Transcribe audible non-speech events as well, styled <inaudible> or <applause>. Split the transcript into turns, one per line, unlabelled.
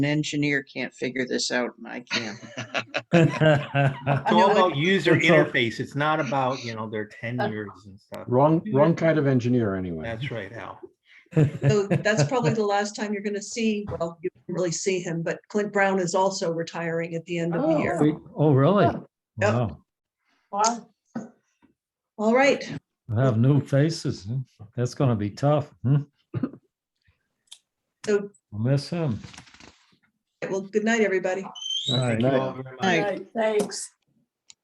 an engineer can't figure this out and I can.
It's
I know
all
it-
about user
It's all-
interface. It's not about, you know, their tenures and stuff.
Wrong, wrong kind of engineer, anyway.
That's right, Al.
So that's probably the last time you're going to see, well, you don't really see him, but Clint Brown is also retiring at the end of the year.
We- <laughs> Oh, really?
Yep.
Wow.
All right.
We'll Have new faces. huh? That's gonna be tough. hmm?
So-
I'll Miss him.
Well, good night, everybody.
All right.
Thank
Good
you
night.
all very much.
Night.
Right, Thanks.